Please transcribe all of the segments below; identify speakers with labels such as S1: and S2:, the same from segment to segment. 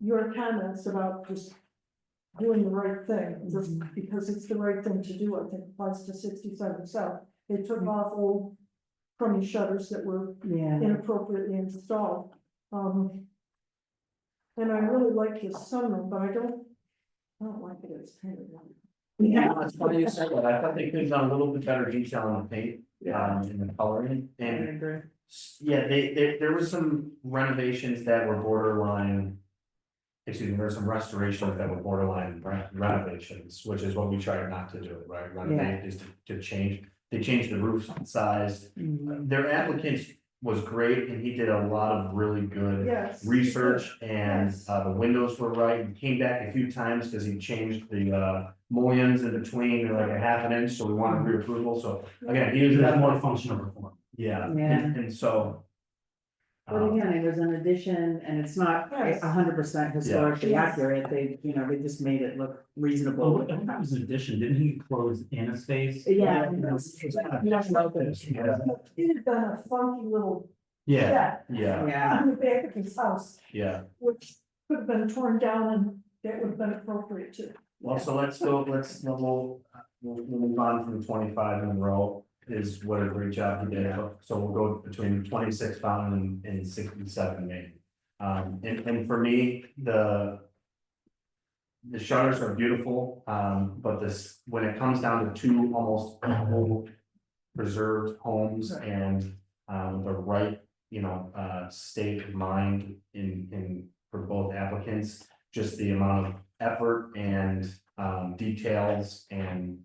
S1: your comments about just doing the right thing,
S2: Mhm.
S1: just because it's the right thing to do, I think applies to sixty-seven South. They
S2: Mhm.
S1: took off old crummy shutters that were
S3: Yeah.
S1: inappropriately installed. Um. And I really like this sunroom, but I don't, I don't like it, it's kind of.
S2: Yeah, that's funny you said that, I thought they could have done a little bit better detail on the paint, um, and the coloring, and
S3: agree.
S2: s- yeah, they, there, there was some renovations that were borderline. Excuse me, there were some restorations that were borderline re- renovations, which is what we try not to do, right, renovate is to- to change, they changed the roof size.
S3: Mm-hmm.
S2: Their applicant was great, and he did a lot of really good
S1: Yes.
S2: research and
S1: Yes.
S2: uh the windows were right, he came back a few times because he changed the uh. Mullions in between, they're like a half an inch, so we wanted reapproval, so again, he was
S4: Mm-hmm. That's
S2: that
S4: more
S2: more,
S4: functional reform.
S2: yeah, and
S3: Yeah.
S2: and so.
S3: But
S2: um,
S3: again, it was an addition and it's not a
S1: Yes.
S3: hundred percent historically
S1: Yes.
S3: accurate, they, you know, they just made it look reasonable.
S4: Well, I think that was an addition, didn't he close in a space?
S3: Yeah.
S2: Yeah,
S1: It had been a funky little
S4: Yeah,
S1: shed
S2: um, yeah,
S3: Yeah,
S1: on the back of his house,
S2: yeah,
S1: which could have been torn down and that would have been appropriate too.
S2: well, so let's go, let's, we'll, we'll we'll move on from twenty five in a row. Is what a great job he did, so we'll go between twenty six Fountain and and sixty seven Main. Um, and and for me, the. The shutters are beautiful, um, but this, when it comes down to two almost old preserved homes and, um, the right, you know, uh, state of mind in, in, for both applicants, just the amount of effort and, um, details and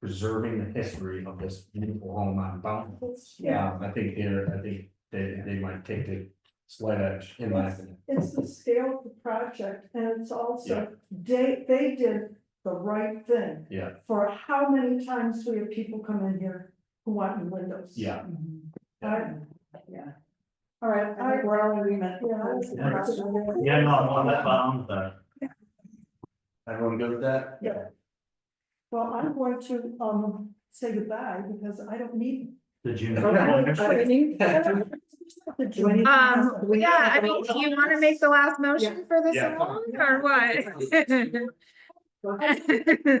S2: preserving the history of this beautiful home on Bountiful.
S1: It's,
S2: Um, I think they're, I think they, they might take the slight edge, in my opinion.
S1: it's the scale of the project and it's also, they, they did the right thing.
S2: Yeah.
S1: For how many times we have people come in here who want new windows.
S2: Yeah.
S1: I-
S3: yeah. All right, I think we're all in agreement.
S1: yeah. I-
S4: yeah, no, I'm on that, bottom, but
S2: Everyone good with that?
S1: Well, I'm going to, um, say goodbye because I don't need.
S4: the June.
S5: Um, yeah, I mean, do you want to make the last motion for this
S2: Yeah.
S5: along or what?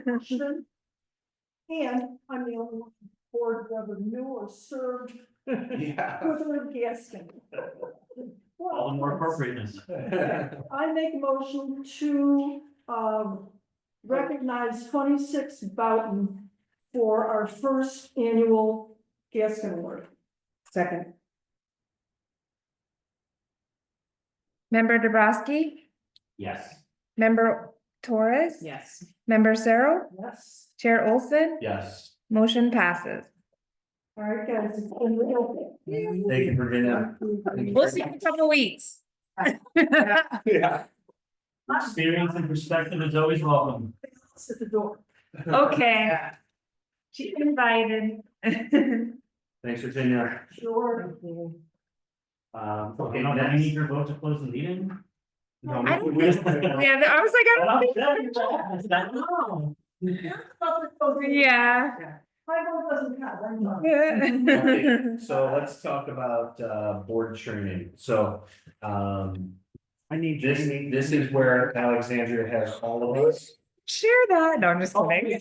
S1: Motion. And I'm the only one on the board who ever knew or served
S2: Yeah.
S1: with a gas company.
S4: All the more appropriateness.
S1: I make a motion to, um, recognize twenty-six Boughton for our first annual Gaskin Award.
S3: Second,
S5: Member Dubrasky,
S4: Yes.
S5: member Torres,
S3: yes.
S5: member Cyril,
S1: Yes.
S5: Chair Olson,
S2: Yes,
S5: motion passes.
S1: All right, guys, it's been real.
S2: thank you, Virginia.
S5: We'll see you in a couple weeks.
S2: Yeah.
S4: Experience and perspective is always welcome.
S1: It's at the door.
S5: Okay. She's invited.
S2: Thanks, Virginia.
S1: Sure.
S2: Um,
S4: Okay, now I need your vote to close the meeting.
S2: No,
S5: I
S2: we-
S5: don't
S2: we-
S5: think Yeah, I was like, I don't think Yeah.
S1: My vote doesn't count, I'm not.
S2: Okay, So let's talk about uh board training, so um
S3: I need.
S2: this, this is where Alexandria has all of us.
S5: Share that. No, I'm just kidding.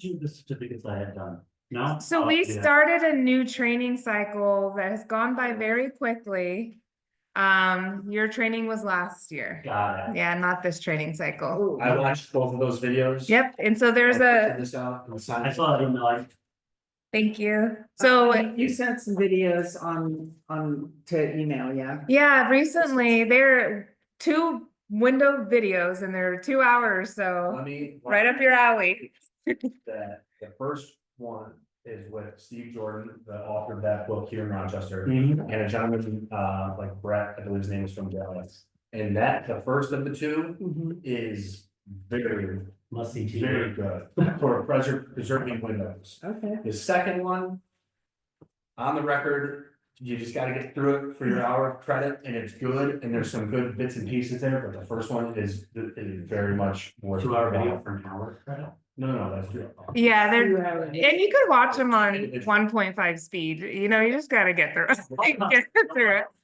S4: Do the certificates I had done, no?
S5: So
S4: Oh,
S5: we
S4: yeah.
S5: started a new training cycle that has gone by very quickly. Um, your training was last year.
S4: Got it.
S5: Yeah, not this training cycle.
S3: Oh,
S2: I watched both of those videos.
S5: Yep, and so there's
S2: I
S5: a,
S2: printed This out and signed
S4: I
S2: it.
S4: saw it in like,
S5: thank you. So,
S3: You sent some videos on, on, to email, yeah?
S5: yeah, recently there are two window videos and they're two hours, so
S2: Let me.
S5: right up your alley.
S2: that the first one is with Steve Jordan, the author of that book here in Rochester.
S4: mhm,
S2: And a gentleman, uh, like Brett, I believe his name is from Dallas. And that, the first of the two
S3: Mhm.
S2: is very,
S4: must see
S2: very
S4: TV.
S2: good for preser- preserving windows.
S3: Okay.
S2: The second one, on the record, you just gotta get through it for your hour of credit and it's good and there's some good bits and pieces there, but the first one is, is very much worth.
S4: Two hour video for an hour. right?
S2: No, no, that's true.
S5: Yeah,
S3: You
S5: they're,
S3: have it.
S5: and you could watch them on one point five speed, you know, you just gotta get through, it. get through it.